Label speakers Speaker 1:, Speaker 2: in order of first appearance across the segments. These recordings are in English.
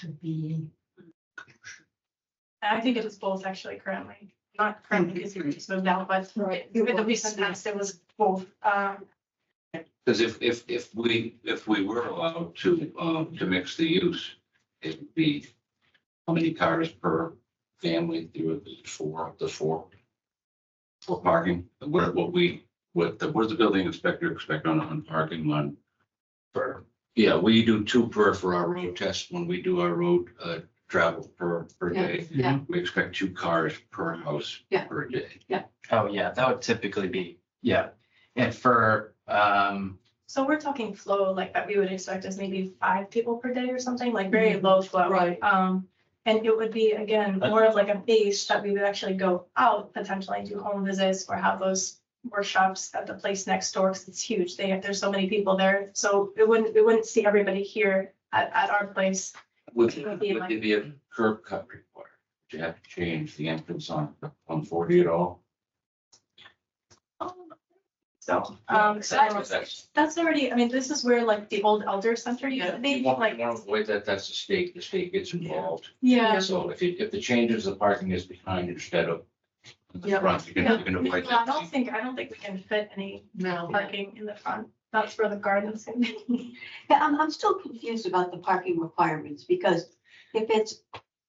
Speaker 1: to be,
Speaker 2: I think it is both actually currently, not currently because you just moved out, but
Speaker 1: Right.
Speaker 2: with the recent past, it was both. Um,
Speaker 3: Because if, if, if we, if we were allowed to, um, to mix the use, it'd be how many cars per family, there would be four, the four for parking, what, what we, what, the, what does the building inspector expect on, on parking on? Per, yeah, we do two per for our road test when we do our road, uh, travel per, per
Speaker 1: Yeah,
Speaker 3: day.
Speaker 1: yeah.
Speaker 3: We expect two cars per house.
Speaker 1: Yeah.
Speaker 3: Per day.
Speaker 4: Oh, yeah, that would typically be, yeah. And for, um,
Speaker 2: so we're talking flow like that we would expect is maybe five people per day or something, like very low flow.
Speaker 1: Mm-hmm. Right.
Speaker 2: Um, and it would be again, more of like a base that we would actually go out potentially do home visits or have those workshops at the place next door because it's huge. They have, there's so many people there. So it wouldn't, we wouldn't see everybody here at, at our place.
Speaker 3: Would,
Speaker 2: It
Speaker 3: would
Speaker 2: would be like-
Speaker 3: there be a curb cut required? Would you have to change the entrance on, on forty at all?
Speaker 2: So, um, so I was-
Speaker 3: That's-
Speaker 2: That's already, I mean, this is where like the old elder center used to
Speaker 3: You
Speaker 2: be,
Speaker 3: want, you
Speaker 2: like,
Speaker 3: want to avoid that, that's the state, the state gets involved.
Speaker 2: yeah.
Speaker 3: So if, it- if the changes, the parking is behind instead of in the
Speaker 1: Yeah.
Speaker 3: front, you can, you can avoid
Speaker 2: Well, I don't
Speaker 3: that.
Speaker 2: think, I don't think we can fit any
Speaker 1: no.
Speaker 2: parking in the front. That's where the garden's gonna be.
Speaker 5: Yeah, I'm, I'm still confused about the parking requirements, because if it's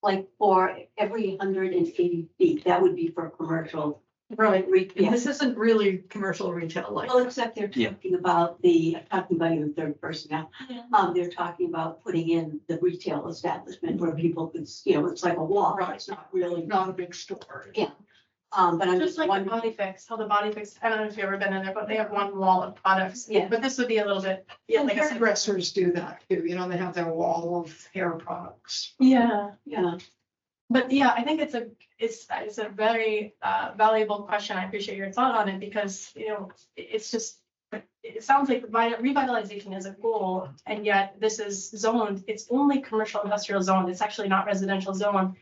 Speaker 5: like for every hundred and eighty feet, that would be for a commercial.
Speaker 1: Right,
Speaker 5: re-
Speaker 1: and
Speaker 5: yeah.
Speaker 1: this isn't really commercial retail like.
Speaker 5: Well, except they're
Speaker 4: Yeah.
Speaker 5: talking about the, talking about you in third person now, um, they're talking about putting in the retail establishment where people could, you know, it's like a wall,
Speaker 1: Right.
Speaker 5: it's not really,
Speaker 1: Not a big store.
Speaker 5: Yeah. um, but I'm
Speaker 2: Just
Speaker 5: just
Speaker 2: like the
Speaker 5: wondering.
Speaker 2: body fix, how the body fix, I don't know if you've ever been in there, but they have one wall of products.
Speaker 5: Yeah.
Speaker 2: But this would be a little bit, yeah,
Speaker 1: And
Speaker 2: like I said.
Speaker 1: hairdressers do that too, you know, they have their wall of hair products.
Speaker 2: Yeah,
Speaker 5: Yeah,
Speaker 2: but yeah, I think it's a, it's, it's a very uh, valuable question. I appreciate your thought on it because, you know, it- it's just it sounds like revi- revitalization is a goal, and yet this is zoned, it's only commercial industrial zone, it's actually not residential zone.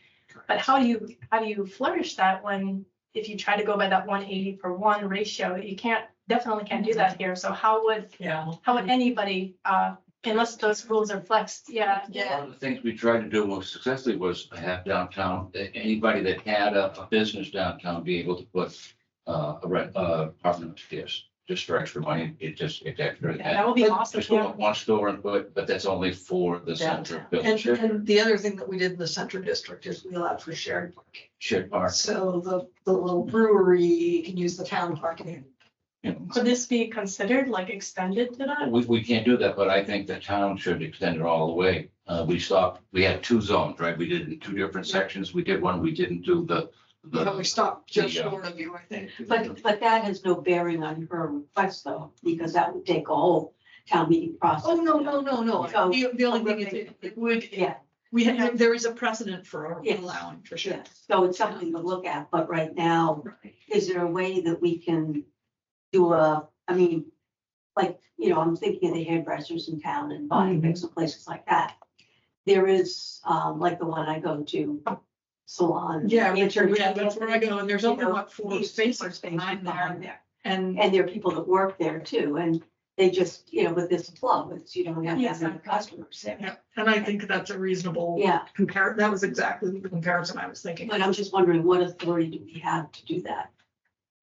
Speaker 2: But how do you, how do you flourish that when, if you try to go by that one eighty per one ratio, you can't, definitely can't do that here, so how would,
Speaker 1: Yeah.
Speaker 2: how would anybody, uh, unless those rules are flexed, yeah.
Speaker 3: One of the things we tried to do most successfully was have downtown, that anybody that had a, a business downtown be able to put uh, a rent, uh, apartment upstairs, just for extra money, it just, it's extra.
Speaker 2: Yeah, That would be awesome,
Speaker 3: Just go
Speaker 2: yeah.
Speaker 3: up one store and put, but that's only for the center of
Speaker 1: And,
Speaker 3: building,
Speaker 1: and the other thing that we did in the center district is we allowed for shared parking.
Speaker 3: shared park.
Speaker 1: So the, the little brewery can use the town parking.
Speaker 3: you know.
Speaker 2: Could this be considered like extended to that?
Speaker 3: We, we can't do that, but I think the town should extend it all the way. Uh, we stopped, we had two zones, right? We did it in two different sections. We did one, we didn't do the,
Speaker 1: But we
Speaker 3: the,
Speaker 1: stopped just
Speaker 3: Yeah.
Speaker 1: short of you, I think.
Speaker 5: but, but that has no bearing on her request though, because that would take a whole town meeting process.
Speaker 1: Oh, no, no, no, no.
Speaker 5: So-
Speaker 1: The, the only thing is it- it would,
Speaker 5: Oh, Yeah,
Speaker 1: we, have- there is a precedent for
Speaker 5: Yes.
Speaker 1: allowing for
Speaker 5: yeah,
Speaker 1: shared.
Speaker 5: so it's something to look at, but right now,
Speaker 1: Right.
Speaker 5: is there a way that we can do a, I mean, like, you know, I'm thinking of the hairdressers in town and body
Speaker 1: Mm-hmm.
Speaker 5: fix and places like that. There is, um, like the one I go to, salon.
Speaker 1: Yeah,
Speaker 5: Richard,
Speaker 1: yeah, that's where I go, and there's only what four spaces
Speaker 5: Behind
Speaker 1: behind there,
Speaker 5: there,
Speaker 1: and
Speaker 5: and there are people that work there too, and they just, you know, with this club, it's, you don't have
Speaker 2: Yes,
Speaker 5: that many
Speaker 2: I've-
Speaker 5: customers there.
Speaker 1: Yeah, and I think that's a reasonable
Speaker 5: Yeah,
Speaker 1: compare, that was exactly the comparison I was thinking.
Speaker 5: but uh, I'm just wondering, what authority do we have to do that?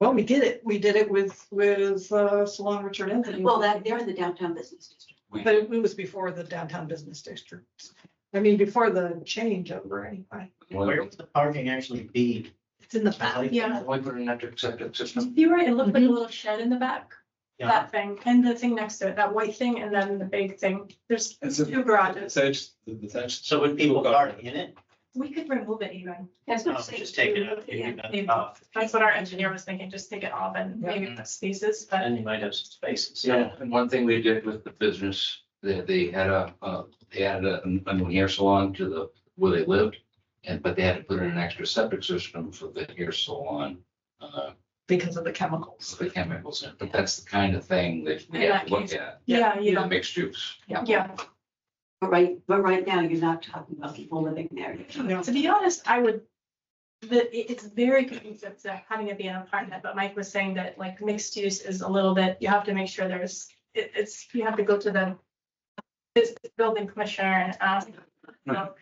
Speaker 1: Well, we did it, we did it with, with uh, Salon Richard Anthony.
Speaker 5: Well, that, they're in the downtown business district.
Speaker 3: we,
Speaker 1: But it was before the downtown business district. I mean, before the change over anyway.
Speaker 3: when
Speaker 6: Where would the parking actually be?
Speaker 1: It's in the back.
Speaker 6: Like-
Speaker 2: Yeah.
Speaker 3: we put an electric septic system.
Speaker 2: You were, it looked like a little shed in the back,
Speaker 6: Yeah,
Speaker 2: that thing, and the thing next to it, that white thing, and then the big thing. There's
Speaker 7: It's a-
Speaker 2: two garages.
Speaker 7: That's, that's.
Speaker 6: so would people park in it?
Speaker 2: We could remove it even.
Speaker 5: That's what I'm
Speaker 6: Um,
Speaker 5: saying.
Speaker 6: Just take it out.
Speaker 5: Yeah.
Speaker 6: take it
Speaker 2: Maybe.
Speaker 6: off.
Speaker 2: That's what our engineer was thinking, just take it off and maybe put spaces, but
Speaker 6: And you might have some spaces.
Speaker 3: Yeah, and one thing we did with the business, they, they had a, uh, they added a, a new hair salon to the, where they lived. And, but they had to put in an extra septic system for the hair salon, uh,
Speaker 1: Because of the chemicals.
Speaker 3: for the chemicals. in it. But that's the kind of thing that we
Speaker 2: In
Speaker 3: have to
Speaker 2: that
Speaker 3: look at,
Speaker 2: yeah, you
Speaker 3: the
Speaker 2: know,
Speaker 3: mixed use.
Speaker 2: yeah.
Speaker 5: But right, but right now, you're not talking about people living there.
Speaker 1: No.
Speaker 2: To be honest, I would, the, it- it's very conducive to having it be an apartment, but Mike was saying that like mixed use is a little bit, you have to make sure there's, it, it's, you have to go to the this building commissioner and ask, you know,